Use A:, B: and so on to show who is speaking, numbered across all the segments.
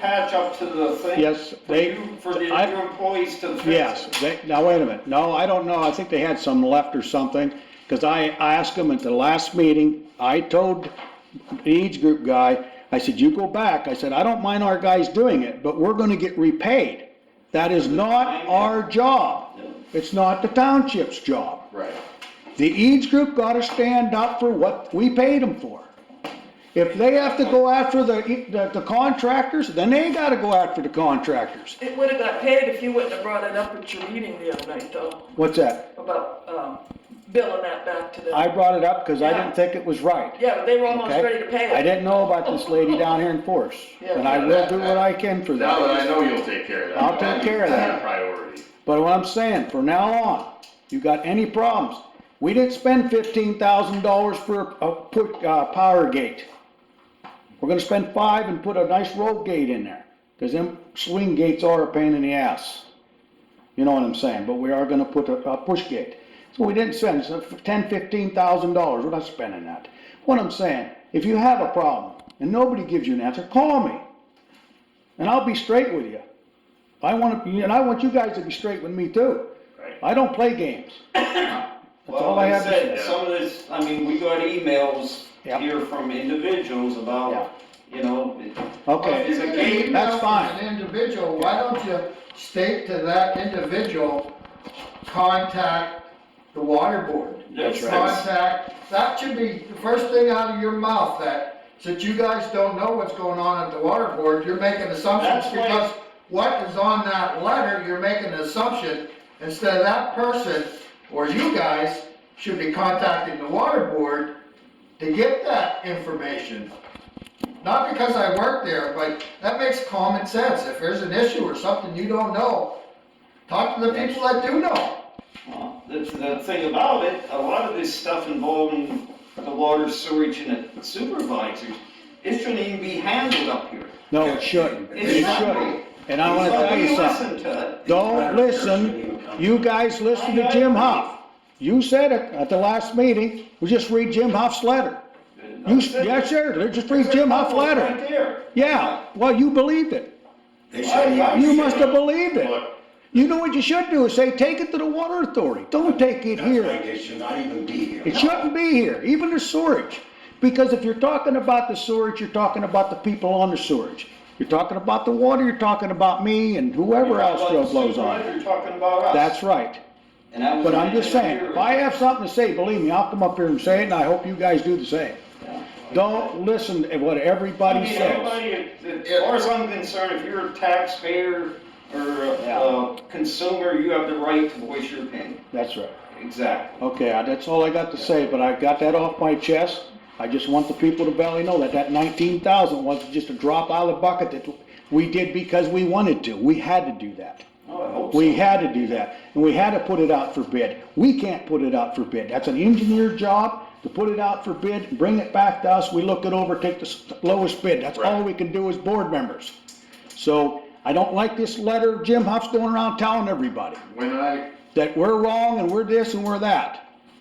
A: patch up to the thing?
B: Yes,
A: for
B: they,
A: you- For the-
B: I-
A: your employees to fix?
B: Yes, they, now wait a minute, no, I don't know, I think they had some left or something, because I asked them at the last meeting, I told the Eads Group guy, I said, you go back, I said, I don't mind our guys doing it, but we're gonna get repaid. That is not our job, it's not the township's job.
C: Right.
B: The Eads Group gotta stand up for what we paid them for. If they have to go after the, the- the contractors, then they gotta go after the contractors.
D: It would've got paid if you wouldn't have brought it up at your meeting the other night though,
B: What's that?
D: about, um, billing that back to
B: I
D: them.
B: brought it up because I didn't think it was right.
D: Yeah, but they were almost
B: Okay?
D: ready to pay it.
B: I didn't know about this lady down here in Forest, and I will do what I can for
C: Now that I
B: that.
C: know you'll take care of that.
B: I'll take care of that.
C: That's a Priority.
B: But what I'm saying, for now on, you got any problems, we didn't spend fifteen thousand dollars for a, put, uh, power gate. We're gonna spend five and put a nice road gate in there, cause them swing gates are a pain in the ass. You know what I'm saying, but we are gonna put a, a push gate. So we didn't spend, so for ten, fifteen thousand dollars, we're not spending that. What I'm saying, if you have a problem and nobody gives you an answer, call me. And I'll be straight with you. I want to, and I want you guys to be straight with me too.
C: Right.
B: I don't play games. That's all
A: Well,
B: I
A: like I
B: have to
A: said,
B: say.
C: say.
A: some of this, I mean, we got emails
B: Yeah.
A: here from individuals
B: Yeah.
A: about, you know, it-
B: Okay.
A: It's
E: If
A: a
E: you're gonna
A: game,
E: email
B: that's fine.
E: An individual, why don't you state to that individual, contact the water board?
A: That's right.
E: Contact, that should be the first thing out of your mouth, that, since you guys don't know what's going on at the water board, you're making assumptions,
A: That's why-
E: because what is on that letter, you're making an assumption, instead of that person, or you guys, should be contacting the water board to get that information. Not because I work there, but that makes common sense. If there's an issue or something you don't know, talk to the people that do know.
A: Well, The, the thing about it, a lot of this stuff involving the water sewage and the supervisors, it shouldn't even be handled up here.
B: No, it shouldn't.
A: It
B: It
A: shouldn't be.
B: shouldn't. And I want to
A: So
B: tell you
A: we
B: something.
A: Listen to it.
B: Don't listen. You guys listen to Jim Hoff. You said it at the last meeting. We just read Jim Hoff's letter. You, yes, sir. Just read Jim Hoff's
A: Right
B: letter.
A: there.
B: Yeah, well, you believed it.
A: I- I
B: You
A: should-
B: must have believed it.
C: Look,
B: You know what you should do is say, take it to the water authority. Don't take it
F: That's
B: here.
F: like it should not even be here.
B: It shouldn't be here, even the storage, because if you're talking about the storage, you're talking about the people on the storage. You're talking about the water, you're talking about me and whoever else still blows on.
A: You're talking about us.
B: That's right,
A: And that was
B: but I'm just
A: mentioned
B: saying,
A: here.
B: if I have something to say, believe me, I'll come up here and say it, and I hope you guys do the same. Don't listen to what
A: I
B: everybody
A: mean,
B: says.
A: everybody, as far as I'm concerned, if you're a taxpayer or
B: Yeah.
A: a- a consumer, you have the right to voice your opinion.
B: That's right.
A: Exactly.
B: Okay, I- that's all I got to say, but I got that off my chest. I just want the people to barely know that that nineteen thousand wasn't just a drop out of the bucket that we did because we wanted to. We had to do that.
A: Oh, I hope so.
B: We had to do that, and we had to put it out for bid. We can't put it out for bid. That's an engineer job, to put it out for bid, bring it back to us, we look it over, take the s- lowest bid. That's all
C: Right.
B: we can do as board members. So I don't like this letter Jim Huff's going around telling everybody
C: When I,
B: that we're wrong and we're this and we're that.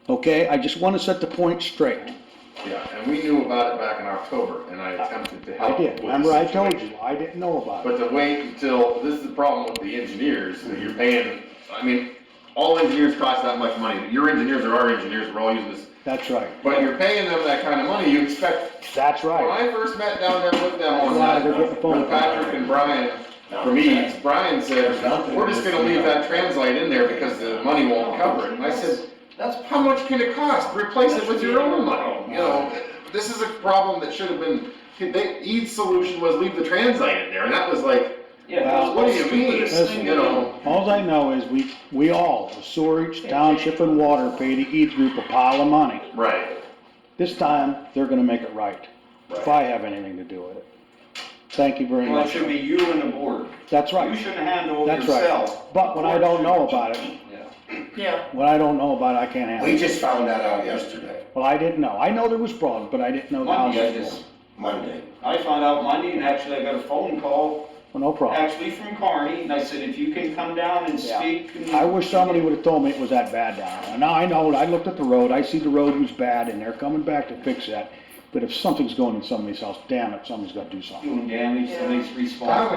B: Okay, I just want to set the point straight.
C: yeah, and we knew about it back in October, and I attempted to
B: I
C: help with
B: did,
C: the
B: remember I told
C: situation.
B: you, I didn't know about it.
C: But to wait until, this is the problem with the engineers, that you're paying, I mean, all engineers cost that much money, but your engineers are our engineers, we're all using this,
B: That's right,
C: but you're paying them that kind of money, you expect,
B: that's
C: when
B: right.
C: I first met down there with them on
B: Glad
C: that,
B: they're getting the phone
C: with
B: call.
C: Patrick and Brian, from Eads, Brian said, we're just gonna leave that translate in there because the money won't cover it, and I said,
A: That's,
C: how much can it cost? Replace it with your own money, you know? This is a problem that should have been, they, Eads' solution was leave the translate in there, and that was like,
A: yeah.
B: Well,
A: that's
C: what do
A: the
C: you mean?
A: stupidest
B: Listen,
A: thing
C: you know,
B: All I know is we, we all, the Sewerage, Township and Water pay to each group a pile of money.
C: Right.
B: This time, they're gonna make it right, if I have anything to do with it. Thank you very
A: Well, it
B: much.
A: should be you and the board.
B: That's
A: You
B: right,
A: shouldn't handle it
B: that's right.
A: yourself.
B: But when I don't know about it,
A: Yeah.
D: Yeah,
B: when I don't know about it, I can't handle
F: We
B: it.
F: just found that out yesterday,
B: Well, I didn't know. I know there was problems, but I didn't know the house
A: Monday, I
B: was
A: just,
B: full.
F: Monday.
A: I found out Monday, and actually I got a phone call,
B: Well, no problem.
A: actually from Carney, and I said, if you can come down and
B: Oh. Yeah.
A: speak. and-"
B: I wish somebody would've told me it was that bad down there. Now, I know, I looked at the road, I see the road was bad, and they're coming back to fix that. But if something's going in somebody's house, damn it, somebody's gotta do
A: Doing
B: something.
A: damage, somebody's responsible.